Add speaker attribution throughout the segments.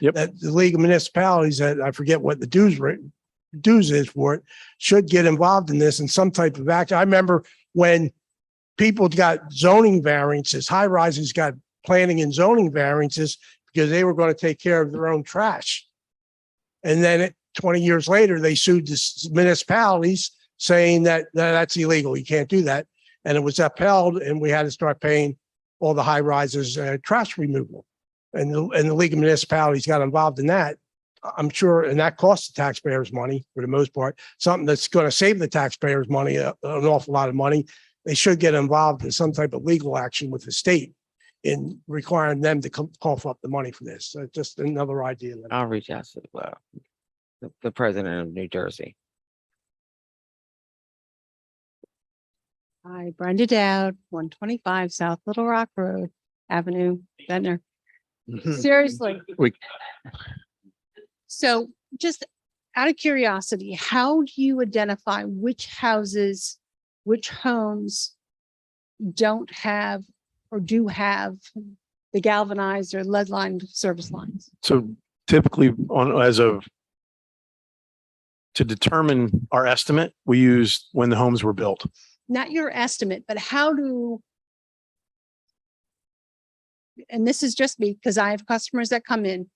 Speaker 1: Yep.
Speaker 2: That the League of Municipalities, that I forget what the dues rate, dues is for it, should get involved in this in some type of action. I remember when people got zoning variances, high rises got planning and zoning variances because they were going to take care of their own trash. And then it- twenty years later, they sued the s- municipalities saying that, "No, that's illegal. You can't do that. And it was upheld and we had to start paying all the high rises, uh, trash removal. And the, and the League of Municipalities got involved in that. I- I'm sure, and that costs the taxpayers money for the most part, something that's going to save the taxpayers money, uh, an awful lot of money. They should get involved in some type of legal action with the state in requiring them to co- cough up the money for this. So just another idea. that-
Speaker 3: I'll reach out to uh, the, the president of New Jersey.
Speaker 4: Hi, Brenda Dowd, one twenty-five South Little Rock Road, Avenue, Ventnor. Seriously.
Speaker 1: We-
Speaker 4: So just out of curiosity, how do you identify which houses, which homes don't have or do have the galvanized or lead lined service lines?
Speaker 1: So typically on, as of to determine our estimate, we used when the homes were built.
Speaker 4: Not your estimate, but how do and this is just me, because I have customers that come in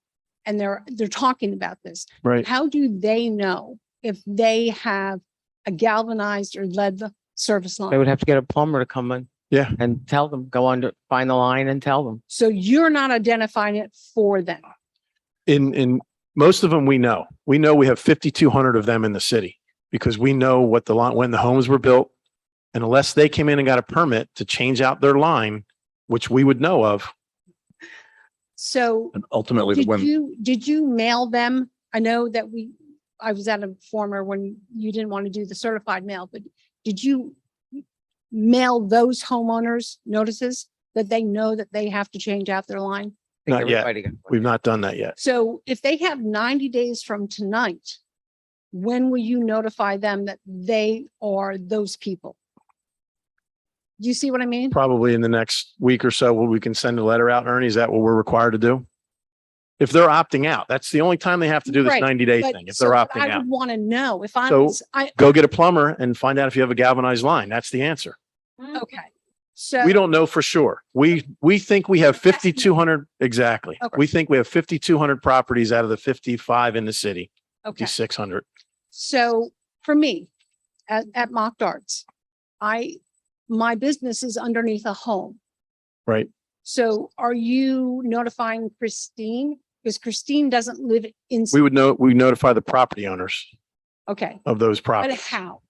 Speaker 4: and they're, they're talking about this.
Speaker 1: Right.
Speaker 4: How do they know if they have a galvanized or lead service
Speaker 3: They
Speaker 4: line?
Speaker 3: would have to get a plumber to come in.
Speaker 1: Yeah.
Speaker 3: And tell them, go under, find the line and tell them.
Speaker 4: So you're not identifying it for them.
Speaker 1: In, in, most of them, we know. We know we have fifty-two hundred of them in the city because we know what the line, when the homes were built. And unless they came in and got a permit to change out their line, which we would know of,
Speaker 4: So
Speaker 5: And ultimately, the
Speaker 4: did
Speaker 5: women,
Speaker 4: you, did you mail them? I know that we, I was at a former when you didn't want to do the certified mail, but did you mail those homeowners notices that they know that they have to change out their line?
Speaker 3: I think
Speaker 1: Not yet.
Speaker 3: everybody got one.
Speaker 1: we've not done that yet.
Speaker 4: So if they have ninety days from tonight, when will you notify them that they are those people? Do you see what I mean?
Speaker 1: Probably in the next week or so, where we can send a letter out, Ernie. Is that what we're required to do? If they're opting out, that's the only time they have to do this
Speaker 4: Right,
Speaker 1: ninety-day
Speaker 4: But-
Speaker 1: thing, if
Speaker 4: so
Speaker 1: they're
Speaker 4: what
Speaker 1: opting
Speaker 4: I
Speaker 1: out.
Speaker 4: would want to know if I'm,
Speaker 1: So-
Speaker 4: s- I,
Speaker 1: go get a plumber and find out if you have a galvanized line. That's the answer.
Speaker 4: okay, so.
Speaker 1: We don't know for sure. We, we think we have fifty-two hundred, exactly.
Speaker 4: Okay.
Speaker 1: We think we have fifty-two hundred properties out of the fifty-five in the city,
Speaker 4: Okay.
Speaker 1: fifty-six hundred.
Speaker 4: So for me, at, at Mock Darts, I, my business is underneath a home.
Speaker 1: Right.
Speaker 4: So are you notifying Christine? Because Christine doesn't live in,
Speaker 1: We would know, we notify the property owners
Speaker 4: okay,
Speaker 1: of those
Speaker 4: but
Speaker 1: properties.
Speaker 4: how?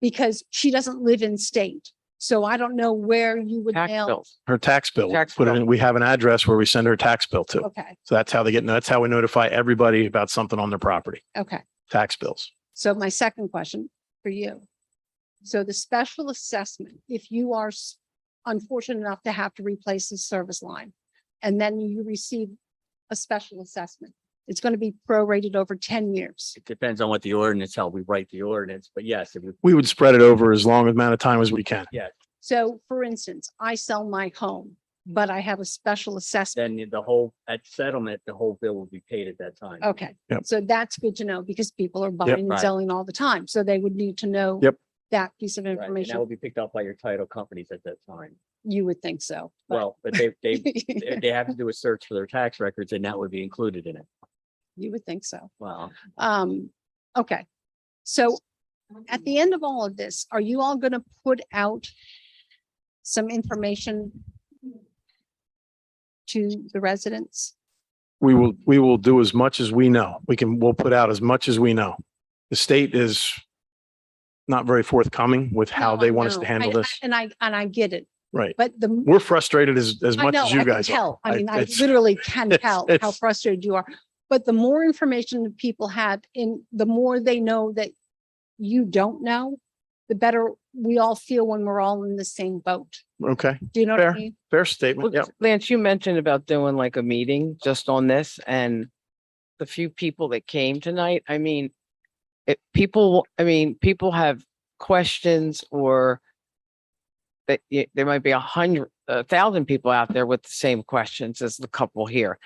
Speaker 4: Because she doesn't live in state, so I don't know where you would
Speaker 3: Tax
Speaker 4: mail.
Speaker 3: bills.
Speaker 1: Her tax bill,
Speaker 3: Tax
Speaker 1: put it
Speaker 3: bill.
Speaker 1: in, we have an address where we send her tax bill to.
Speaker 4: Okay,
Speaker 1: So that's how they get, that's how we notify everybody about something on their property,
Speaker 4: okay.
Speaker 1: tax bills.
Speaker 4: So my second question for you. So the special assessment, if you are s- unfortunate enough to have to replace the service line and then you receive a special assessment, it's going to be prorated over ten years.
Speaker 5: it depends on what the ordinance, how we write the ordinance, but yes, if we
Speaker 1: We would spread it over as long amount of time as we can.
Speaker 4: So for instance, I sell my home,
Speaker 5: Hmm.
Speaker 4: but I have a special assessment.
Speaker 5: then the whole, at settlement, the whole bill will be paid at that time.
Speaker 4: Okay,
Speaker 1: Yep.
Speaker 4: so that's good to know because people are buying and
Speaker 5: Right.
Speaker 4: selling all the time. So they would need to know
Speaker 1: Yep.
Speaker 4: that piece of
Speaker 5: Right, And that will
Speaker 4: information.
Speaker 5: be picked up by your title companies at that time.
Speaker 4: You would think so. but-
Speaker 5: Well, but they, they, they- they have to do a search for their tax records and that would be included in it.
Speaker 4: You would think so.
Speaker 5: Wow.
Speaker 4: Um, okay. So at the end of all of this, are you all gonna put out some information to the residents?
Speaker 1: We will, we will do as much as we know. We can, we'll put out as much as we know. The state is not very forthcoming with how
Speaker 4: No,
Speaker 1: they
Speaker 4: I
Speaker 1: want us to
Speaker 4: know.
Speaker 1: handle
Speaker 4: I- I-
Speaker 1: this.
Speaker 4: And I, and I get it,
Speaker 1: Right.
Speaker 4: but the.
Speaker 1: We're frustrated as, as
Speaker 4: I
Speaker 1: much
Speaker 4: know,
Speaker 1: as
Speaker 4: I
Speaker 1: you
Speaker 4: can
Speaker 1: guys. are.
Speaker 4: tell. I mean, I
Speaker 1: it's-
Speaker 4: literally can
Speaker 1: it's-
Speaker 4: tell how
Speaker 1: it's-
Speaker 4: frustrated you are. But the more information that people have and the more they know that you don't know, the better we all feel when we're all in the same boat.
Speaker 1: Okay,
Speaker 4: Do you know what I
Speaker 1: Fair.
Speaker 4: mean?
Speaker 1: fair
Speaker 3: Well,
Speaker 1: statement. Yeah.
Speaker 3: Lance, you mentioned about doing like a meeting just on this and the few people that came tonight, I mean, it, people, I mean, people have questions or that y- there might be a hundred, a thousand people out there with the same questions as the couple here.